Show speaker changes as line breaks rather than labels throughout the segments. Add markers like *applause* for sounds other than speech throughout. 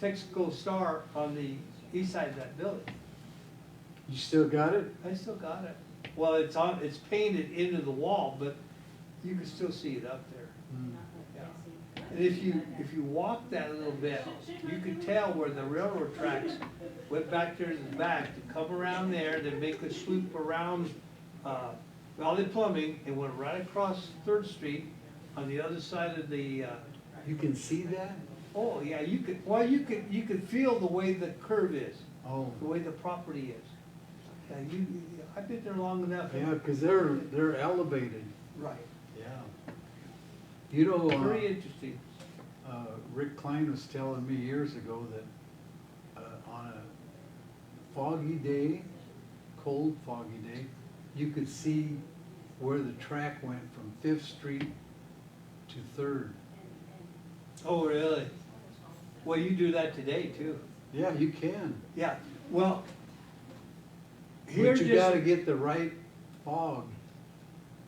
Texaco Star on the east side of that building.
You still got it?
I still got it. Well, it's on, it's painted into the wall, but you can still see it up there.
Yeah.
And if you, if you walk that little bit, you can tell where the railroad tracks went back there to the back to come around there, then make a swoop around, uh, Valley Plumbing and went right across Third Street on the other side of the, uh,
You can see that?
oh, yeah, you could, well, you could, you could feel the way the curve is,
Oh,
the way the property is. Yeah, you, I've been there long enough.
yeah, cause they're, they're elevated.
Right,
Yeah. You know,
very
uh,
interesting.
uh, Rick Klein was telling me years ago that, uh, on a foggy day, cold foggy day, you could see where the track went from Fifth Street to Third.
Oh, really? Well, you do that today too.
Yeah, you can.
Yeah, well, here
But you gotta
just,
get the right fog.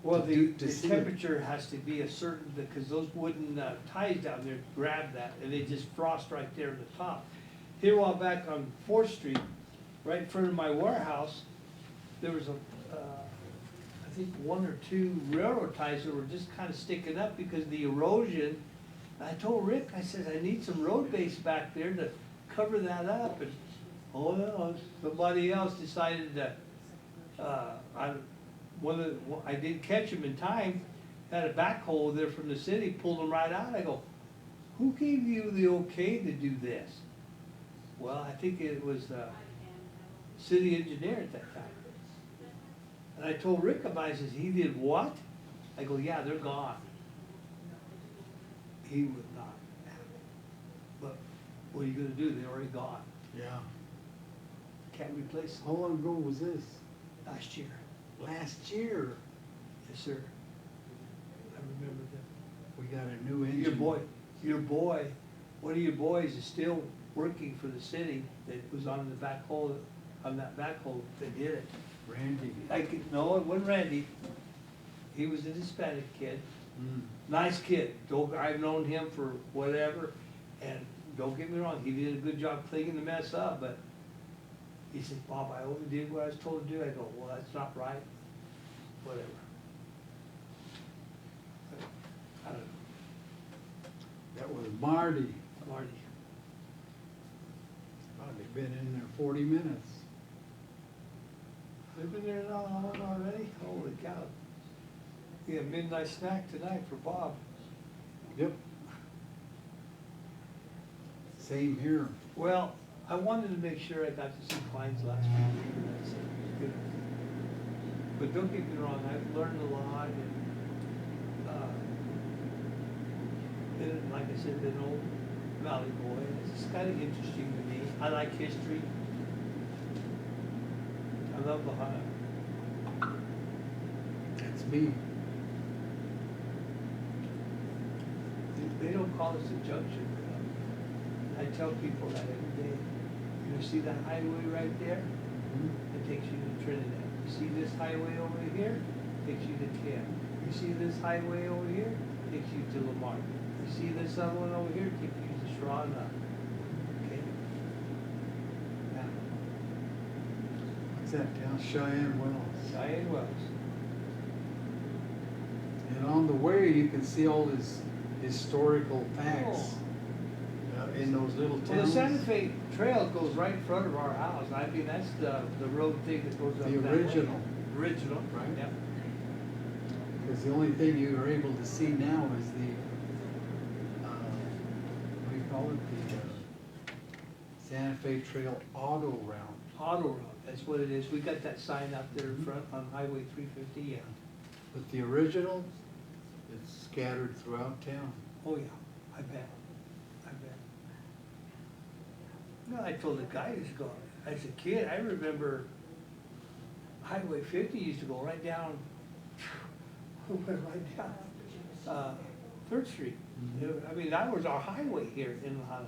well,
to
the,
do- to
the
see it.
temperature has to be a certain, because those wooden uh, ties down there grab that, and they just frost right there in the top. Here a while back on Fourth Street, right in front of my warehouse, there was a, uh, I think one or two railroad ties that were just kind of sticking up because of the erosion. And I told Rick, I said, I need some road base back there to cover that up, and, oh, well, somebody else decided to uh, I, one of, the- I did catch him in time, had a backhoe there from the city, pulled him right out, I go, who gave you the okay to do this? Well, I think it was, uh, city engineer at that time. And I told Rick about it, he says, he did what? I go, yeah, they're gone. He would not have it. But what are you gonna do, they're already gone,
Yeah.
can't replace them,
How long ago was this?
last year.
Last year.
Yes, sir. I remember that.
We got a new engine.
Your boy, your boy, one of your boys is still working for the city that was on the back hole, on that back hole that did it.
Randy.
I could, no, it wasn't Randy. He was a Hispanic kid,
Mm.
nice kid. Don't, I've known him for whatever, and don't get me wrong, he did a good job cleaning the mess up, but he said, Bob, I only did what I was told to do. I go, well, that's not right, whatever. I don't know.
That was Marty.
Marty.
Probably been in there forty minutes.
We've been there not long already, holy cow. We have midnight snack tonight for Bob.
Yep. Same here.
Well, I wanted to make sure I got to see Klein's last week. That's good. But don't get me wrong, I've learned a lot and, uh, been, like I said, been old Valley boy, it's kind of interesting to me. I like history. I love Ohio.
That's me.
They don't call us a junction. I tell people that every day. You see that highway right there?
Mm.
It takes you to Trinidad. You see this highway over here? Takes you to Camp. You see this highway over here? Takes you to Lamar. You see this other one over here? Takes you to Sharona. Okay? Now,
What's that town? Cheyenne Wells.
Cheyenne Wells.
And on the way, you can see all his historical facts uh, in those little
Oh. Well, the
towns.
Santa Fe Trail goes right in front of our house. I mean, that's the, the road thing that goes up
The
that way.
original.
Original, right,
Right.
yeah.
Because the only thing you are able to see now is the, uh, what do you call it, the uh, Santa Fe Trail Auto Route.
Auto road, that's what it is. We got that sign out there in front on Highway three fifty, yeah.
But the original, it's scattered throughout town.
Oh, yeah, I bet, I bet. No, I told the guy who's gone, as a kid, I remember Highway fifty used to go right down, *laughs* went right down, uh, Third Street.
Mm-hmm.
Mhm.
I mean, that was our highway here in Lahana.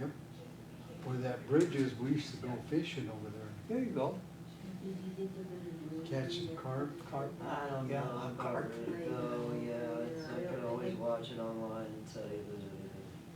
Yep. Where that bridge is, we used to go fishing over there,
There you go.
catching carp.
Cart-
I don't
Yeah,
know
cart.
about it though, yeah, it's, I could always watch it online and tell you that it